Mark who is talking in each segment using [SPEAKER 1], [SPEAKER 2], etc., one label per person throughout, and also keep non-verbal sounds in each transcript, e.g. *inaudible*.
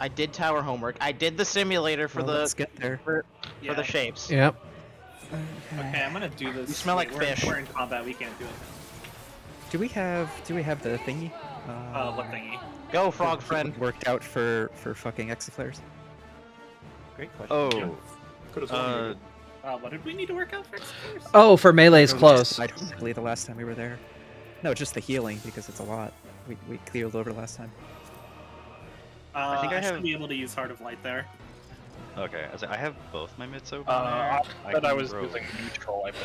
[SPEAKER 1] I did tower homework. I did the simulator for
[SPEAKER 2] Well,
[SPEAKER 1] the
[SPEAKER 2] let's get there.
[SPEAKER 1] for,
[SPEAKER 3] Yeah.
[SPEAKER 1] for the shapes.
[SPEAKER 4] Yep.
[SPEAKER 3] Okay, I'm gonna do this.
[SPEAKER 1] You smell
[SPEAKER 3] Wait,
[SPEAKER 1] like
[SPEAKER 3] we're,
[SPEAKER 1] fish.
[SPEAKER 3] We're in combat. We can't do it.
[SPEAKER 2] Do we have do we have the thingy?
[SPEAKER 3] Uh, what thingy?
[SPEAKER 1] Go,
[SPEAKER 2] the-
[SPEAKER 1] frog
[SPEAKER 2] that
[SPEAKER 1] friend.
[SPEAKER 2] Worked out for for fucking exaflares.
[SPEAKER 5] Great question.
[SPEAKER 6] Oh,
[SPEAKER 5] Could
[SPEAKER 6] uh,
[SPEAKER 3] Uh, what did we need to work out for explorers?
[SPEAKER 4] Oh, for melee is
[SPEAKER 2] Or we just
[SPEAKER 4] close.
[SPEAKER 2] died horribly the last time we were there. No, just the healing because it's a lot. We we cleared over last time.
[SPEAKER 3] Uh,
[SPEAKER 6] I
[SPEAKER 3] I
[SPEAKER 6] think I have-
[SPEAKER 3] should be able to use Heart of Light there.
[SPEAKER 6] okay. I, was like, I have both my mitts open.
[SPEAKER 7] Uh,
[SPEAKER 6] there.
[SPEAKER 7] but I
[SPEAKER 6] can
[SPEAKER 7] was
[SPEAKER 6] grow-
[SPEAKER 7] using neutral, I believe.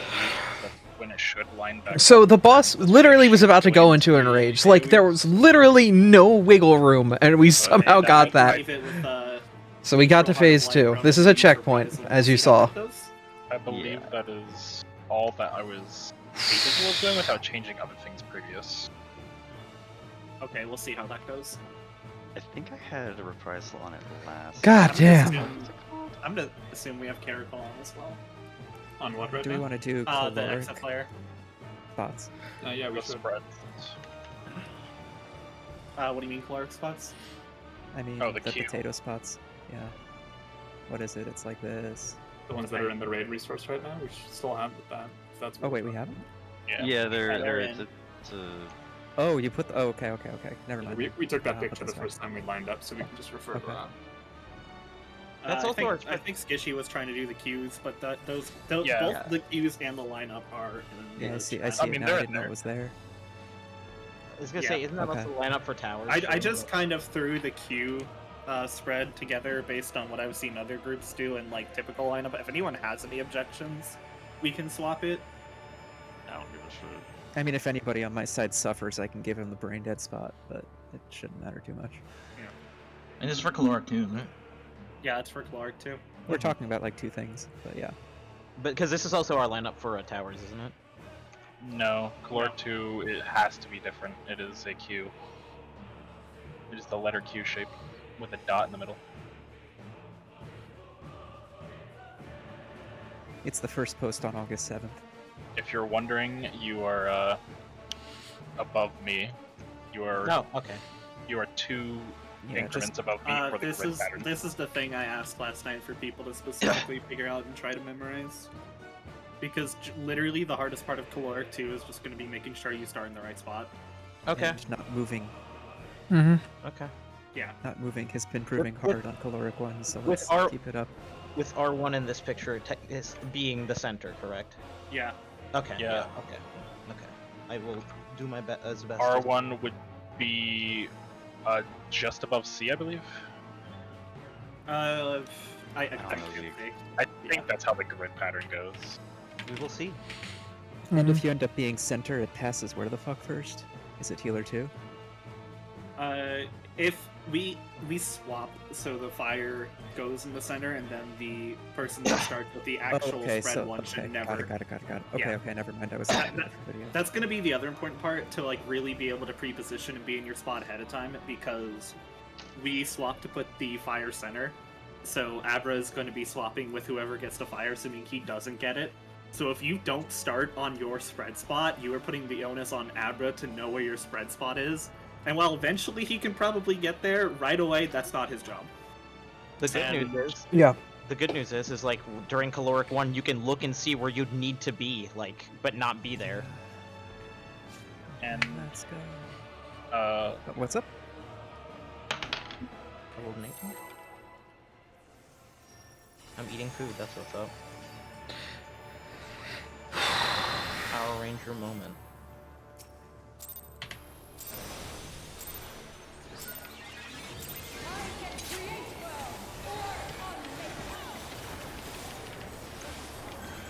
[SPEAKER 7] That's when it should line back.
[SPEAKER 4] So
[SPEAKER 7] up.
[SPEAKER 4] the boss literally was about to go into an rage. Like there was literally no wiggle room, and we somehow
[SPEAKER 3] And, uh,
[SPEAKER 4] got
[SPEAKER 3] you
[SPEAKER 4] that.
[SPEAKER 3] leave it with, uh,
[SPEAKER 4] So we got to
[SPEAKER 3] Heart of
[SPEAKER 4] phase
[SPEAKER 3] Light
[SPEAKER 4] two.
[SPEAKER 3] from
[SPEAKER 4] This is
[SPEAKER 3] the
[SPEAKER 4] a
[SPEAKER 3] Beast of
[SPEAKER 4] checkpoint,
[SPEAKER 3] Paradise.
[SPEAKER 4] as you
[SPEAKER 3] See how
[SPEAKER 4] saw.
[SPEAKER 3] that goes?
[SPEAKER 7] I believe that is all that I was capable of doing without changing other things previous.
[SPEAKER 3] Okay, we'll see how that goes.
[SPEAKER 6] I think I had a reprisal on it last.
[SPEAKER 4] God
[SPEAKER 3] I'm gonna
[SPEAKER 4] damn.
[SPEAKER 3] assume- I'm gonna assume we have Caracol on as well.
[SPEAKER 8] On what right
[SPEAKER 2] Do we
[SPEAKER 8] now?
[SPEAKER 2] want to do
[SPEAKER 3] Uh, the
[SPEAKER 2] caloric
[SPEAKER 3] Exa player.
[SPEAKER 2] spots?
[SPEAKER 8] Uh, yeah, we
[SPEAKER 7] The
[SPEAKER 8] should.
[SPEAKER 7] spread.
[SPEAKER 3] Uh, what do you mean, caloric spots?
[SPEAKER 2] I mean,
[SPEAKER 7] Oh,
[SPEAKER 2] the,
[SPEAKER 7] the queue.
[SPEAKER 2] potato spots. Yeah. What is it? It's like this.
[SPEAKER 8] The ones that are in the raid resource right now. We should still have that. if That's
[SPEAKER 2] Oh
[SPEAKER 8] what
[SPEAKER 2] wait,
[SPEAKER 8] we're
[SPEAKER 2] we haven't.
[SPEAKER 7] Yeah.
[SPEAKER 6] Yeah, they're
[SPEAKER 3] Yeah, they're
[SPEAKER 6] they're it's
[SPEAKER 3] in.
[SPEAKER 6] a, it's a
[SPEAKER 2] Oh, you put. The, oh, okay, okay, okay. Never
[SPEAKER 8] doing.
[SPEAKER 2] mind.
[SPEAKER 8] We, we took that
[SPEAKER 2] Uh,
[SPEAKER 8] picture the
[SPEAKER 2] that's right.
[SPEAKER 8] first time we lined up, so we can just refer to
[SPEAKER 2] Okay.
[SPEAKER 8] that.
[SPEAKER 1] That's
[SPEAKER 3] uh,
[SPEAKER 1] also
[SPEAKER 3] I
[SPEAKER 1] our
[SPEAKER 3] think, I think Skishy was trying to do the cues, but that, those, those
[SPEAKER 7] Yeah.
[SPEAKER 3] both
[SPEAKER 6] Yeah.
[SPEAKER 3] the cues and the lineup are. In
[SPEAKER 2] Yeah, I
[SPEAKER 3] the
[SPEAKER 2] see. I
[SPEAKER 3] chat.
[SPEAKER 2] see.
[SPEAKER 7] mean,
[SPEAKER 2] it now
[SPEAKER 7] they're
[SPEAKER 2] I
[SPEAKER 7] in
[SPEAKER 2] didn't know it
[SPEAKER 7] there.
[SPEAKER 2] was there.
[SPEAKER 1] I was gonna
[SPEAKER 3] Yeah,
[SPEAKER 1] say, isn't that
[SPEAKER 2] okay.
[SPEAKER 1] also the lineup for towers?
[SPEAKER 3] I, I
[SPEAKER 1] So-
[SPEAKER 3] just kind of threw the queue uh, spread together based on what I've seen other groups do and like typical lineup. If anyone has any objections, we can swap it.
[SPEAKER 6] I don't give a shit.
[SPEAKER 2] I mean, if anybody on my side suffers, I can give him the brain dead spot, but it shouldn't matter too much.
[SPEAKER 5] and it's for caloric too, isn't it?
[SPEAKER 3] Yeah, it's for Clark too.
[SPEAKER 2] We're talking about like two things, but yeah.
[SPEAKER 1] but because this is also our lineup for uh, towers, isn't it?
[SPEAKER 7] No, Calor 2, it has to be different. It is a Q. It is the letter Q shape with a dot in the middle.
[SPEAKER 2] It's the first post on August seventh.
[SPEAKER 7] If you're wondering, you are uh, above me. You are
[SPEAKER 1] No. Okay.
[SPEAKER 7] you are two
[SPEAKER 2] Yeah,
[SPEAKER 7] increments
[SPEAKER 2] just
[SPEAKER 7] above me
[SPEAKER 3] Uh,
[SPEAKER 7] for the
[SPEAKER 3] this
[SPEAKER 7] grid
[SPEAKER 3] is
[SPEAKER 7] pattern.
[SPEAKER 3] this is the thing I asked last night for people to specifically figure out and try to memorize. Because j- literally the hardest part of caloric 2 is just going to be making sure you start in the right spot.
[SPEAKER 1] Okay.
[SPEAKER 2] and not moving.
[SPEAKER 4] Mm-hmm.
[SPEAKER 1] Okay.
[SPEAKER 2] Not moving has been proving
[SPEAKER 1] with-
[SPEAKER 2] hard on caloric one, so let's
[SPEAKER 1] our-
[SPEAKER 2] keep it up.
[SPEAKER 1] With R one in this picture te- is being the center, correct?
[SPEAKER 3] Yeah,
[SPEAKER 1] Okay.
[SPEAKER 7] Yeah.
[SPEAKER 1] Okay. Okay. I will do my be- as best. as-
[SPEAKER 7] R1 would be uh, just above C, I believe.
[SPEAKER 3] uh, I, I,
[SPEAKER 6] don't
[SPEAKER 3] I'm
[SPEAKER 6] know,
[SPEAKER 3] too
[SPEAKER 6] Zeke.
[SPEAKER 3] big.
[SPEAKER 7] I think that's how the grid pattern goes.
[SPEAKER 1] We will see.
[SPEAKER 2] And if you end up being center, it passes where the fuck first? Is it healer two?
[SPEAKER 3] Uh, if we we swap, so the fire goes in the center, and then the person that starts with the
[SPEAKER 2] Oh,
[SPEAKER 3] actual
[SPEAKER 2] okay,
[SPEAKER 3] spread
[SPEAKER 2] so
[SPEAKER 3] one
[SPEAKER 2] okay,
[SPEAKER 3] should never.
[SPEAKER 2] got it, got it, got it, got it. Okay,
[SPEAKER 3] Yeah.
[SPEAKER 2] okay, never mind. I was
[SPEAKER 3] That-
[SPEAKER 2] thinking of
[SPEAKER 3] that-
[SPEAKER 2] the video.
[SPEAKER 3] That's gonna be the other important part to like really be able to pre-position and be in your spot ahead of time because we swap to put the fire center. So Abra is going to be swapping with whoever gets the fire, assuming he doesn't get it. So if you don't start on your spread spot, you are putting the onus on Abra to know where your spread spot is. And while eventually he can probably get there, right away that's not his job.
[SPEAKER 1] The good
[SPEAKER 7] And-
[SPEAKER 1] news is.
[SPEAKER 4] Yeah.
[SPEAKER 1] The good news is, is like during caloric one, you can look and see where you'd need to be, like, but not be there.
[SPEAKER 7] And
[SPEAKER 2] Let's go.
[SPEAKER 7] uh,
[SPEAKER 2] Uh, What's up?
[SPEAKER 1] I rolled an 18. I'm eating food, that's what's up. *sighs* Power Ranger moment.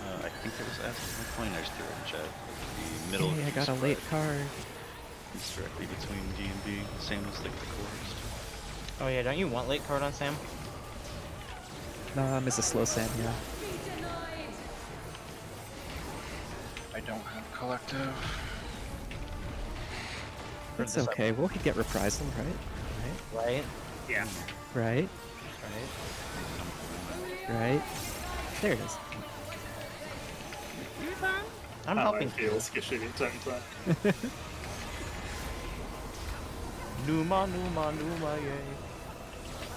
[SPEAKER 6] Uh, I think there was asking my coin. I just threw it in chat. The middle.
[SPEAKER 2] Hey, I
[SPEAKER 6] of
[SPEAKER 2] got a
[SPEAKER 6] East
[SPEAKER 2] late
[SPEAKER 6] Spread
[SPEAKER 2] card.
[SPEAKER 6] is directly between D and B, same as like the chorus.
[SPEAKER 1] Oh yeah, don't you want late card on Sam?
[SPEAKER 2] Nah, I'm a slow Sam, yeah.
[SPEAKER 7] I don't have collective.
[SPEAKER 2] It's
[SPEAKER 7] this up.
[SPEAKER 2] okay. We'll get reprisal, right?
[SPEAKER 1] Right?
[SPEAKER 3] Yeah.
[SPEAKER 2] Right?
[SPEAKER 1] Right?
[SPEAKER 2] Right? Right? There it is.
[SPEAKER 1] I'm
[SPEAKER 8] How I
[SPEAKER 1] helping.
[SPEAKER 8] feel skishy in terms of
[SPEAKER 1] Numa, Numa, Numa, yay.